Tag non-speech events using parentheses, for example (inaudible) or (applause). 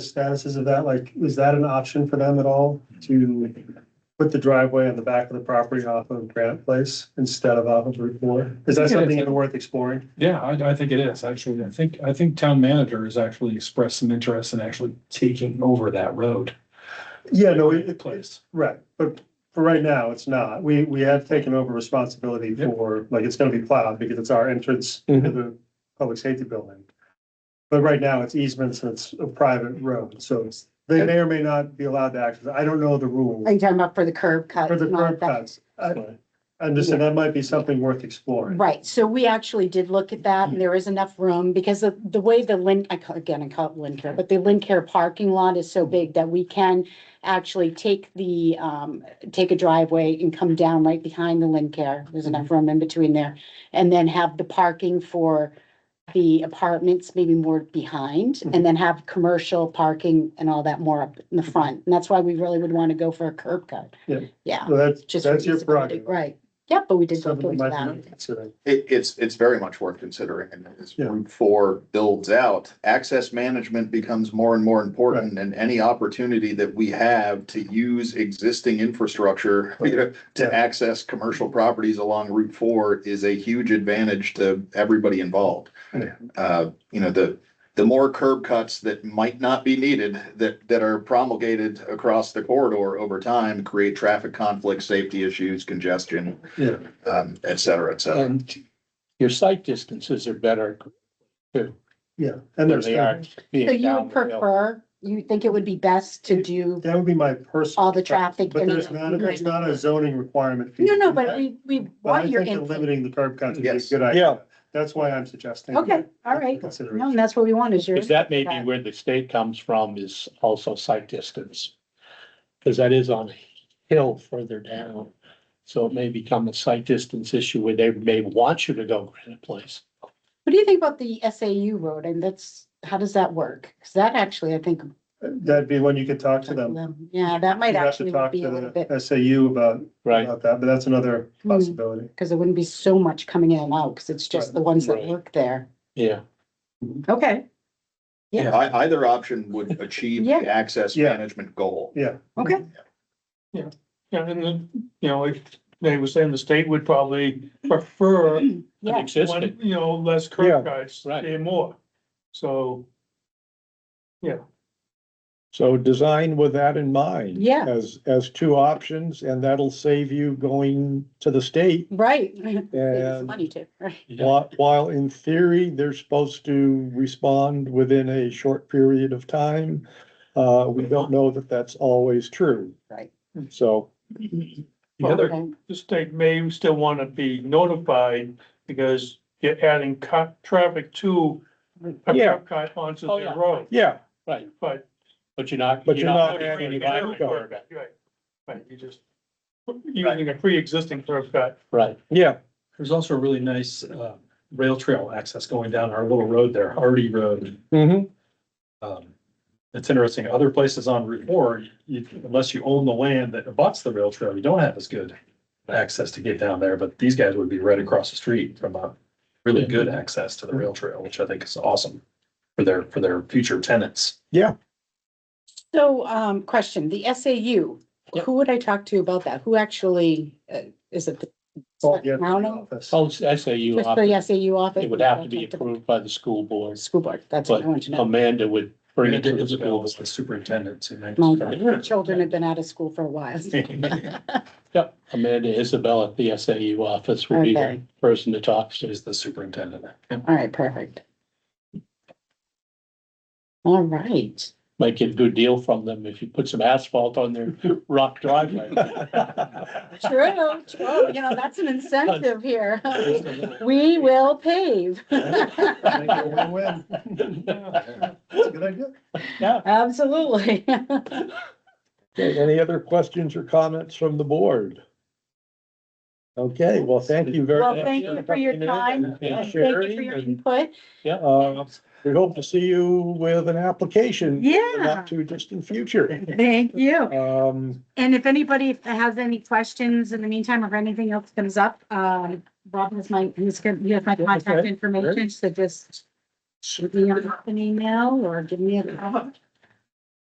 statuses of that, like, is that an option for them at all to put the driveway on the back of the property off of Granite Place instead of off of Route Four? Is that something even worth exploring? Yeah, I, I think it is, actually. I think, I think town manager has actually expressed some interest in actually taking over that road. Yeah, no, it, it- Place. right, but for right now, it's not. We, we have taken over responsibility Yep. for, like, it's gonna be plowed because it's our entrance to the public safety building. But right now, it's easements, and it's a private road, so it's, they may or may not be allowed to access. I don't know the rules. Are you talking about for the curb cut? For the and all curb that? cuts, I, I'm just saying that might be something worth exploring. Right, so we actually did look at that and Mm. there is enough room because of the way the Lin, I call, again, I call it Lin Care, but the Lin Care parking lot is Mm. so big that we can actually take the, um, take a driveway and come down right behind the Lin Care. There's enough Mm-hmm. room in between there. And then have the parking for the apartments maybe more behind Mm-hmm. and then have commercial parking and all that more up in the front. And that's why we really would want to go for a curb cut. Yeah. Yeah. So that's, Just that's your feasibility, prerogative. Right, yeah, but we did look Something into that might that. be considered. It, it's, it's very much worth considering, and as Yeah. Route Four builds out, access management becomes more and more important, and any opportunity that we have to use existing infrastructure, (laughs) you know, Yeah. to access commercial properties along Route Four is a huge advantage to everybody involved. Yeah. Uh, you know, the, the more curb cuts that might not be needed, that, that are promulgated across the corridor over time, create traffic conflicts, safety issues, congestion, Yeah, um, et cetera, et cetera. And Um, your sight distances are better yeah. And than there's, they are that So being you down would the hill. prefer, you think it would be best to do would be my personal. all the traffic? But and- there's not, there's not a zoning requirement. for you No, to no, do but that. we, we But I want your think that input. Limiting the curb cuts would be a Yes. good idea. That's why I'm suggesting. Okay, all right. No, Consideration. and that's what we want is your. Because that may be where the state comes from is also sight distance. Because that is on a hill further down. So it may become a sight distance issue where they may want you to go Granite Place. What do you think about the SAU road? And that's, how does that work? Cause that actually, I think. That'd be when you could talk to them. Yeah, that might You'd have actually to talk be a little to bit, the SAU about, Right. about that, but that's another Hmm. possibility. cause there wouldn't be so much coming in and out, cause it's just Right. the ones that Right. work there. Yeah. Okay, I, either option would achieve Yeah. the access Yeah. management goal. Yeah, okay. Yeah, and then, you know, if they were saying the state would probably prefer, one, An Yeah, existing, you know, less curb cuts, right. and more. So, yeah, So design with that in mind. Yeah. As, as two options, and that'll save you going to the state. right. (laughs) Save some And Money too, right? while, while in theory, they're supposed to respond within a short period of time, uh, we don't know that that's always true. Right. So, The other, Okay. the state may still want to be notified because you're adding cut, traffic to a Yeah. curb cut onto Oh, the yeah. road, yeah, right, but. but you're not. But you're not you're adding not- curb cut. Right, right, you just, using a pre-existing curb cut. Right, yeah, There's also a really nice, uh, rail trail access going down our little road there, Hardy Road. mhm, Um, it's interesting, other places on Route Four, you, unless you own the land that abuts the rail trail, you don't have as good access to get down there, but these guys would be right across the street from a really good access to the rail trail, which I think is awesome for their, for their future tenants. So, um, question, the SAU, Yep. who would I talk to about that? Who actually, uh, is it? Well, yeah, the Town? office. so SAU, Just the SAU office? it would have to be approved by the school board, School board, that's what I want but to know. Amanda would bring it to the school. The superintendent. who makes- My children have been out of school for a while. (laughs) Yep, Amanda Isabel at the SAU office would be Okay. the person to talk to. Is the superintendent. All right, perfect. All right, Might get a good deal from them if you put some asphalt on their rock (laughs) driveway. (laughs) true, true, you know, that's an incentive here. We will pave. Win-win. That's a good idea. Absolutely. Okay, any other questions or comments from the board? Okay, well, thank you very Well, much. thank you for your coming in time. and- Yeah, and and Thank you for sharing your and- input. Uh, we hope to see you with an application. in the Yeah, Not too distant future. thank you. Um, And if anybody has any questions in the meantime, or anything else comes up, um, Rob has my, he's gonna, he has my contact Okay, information, so just shoot me an email or give me a call.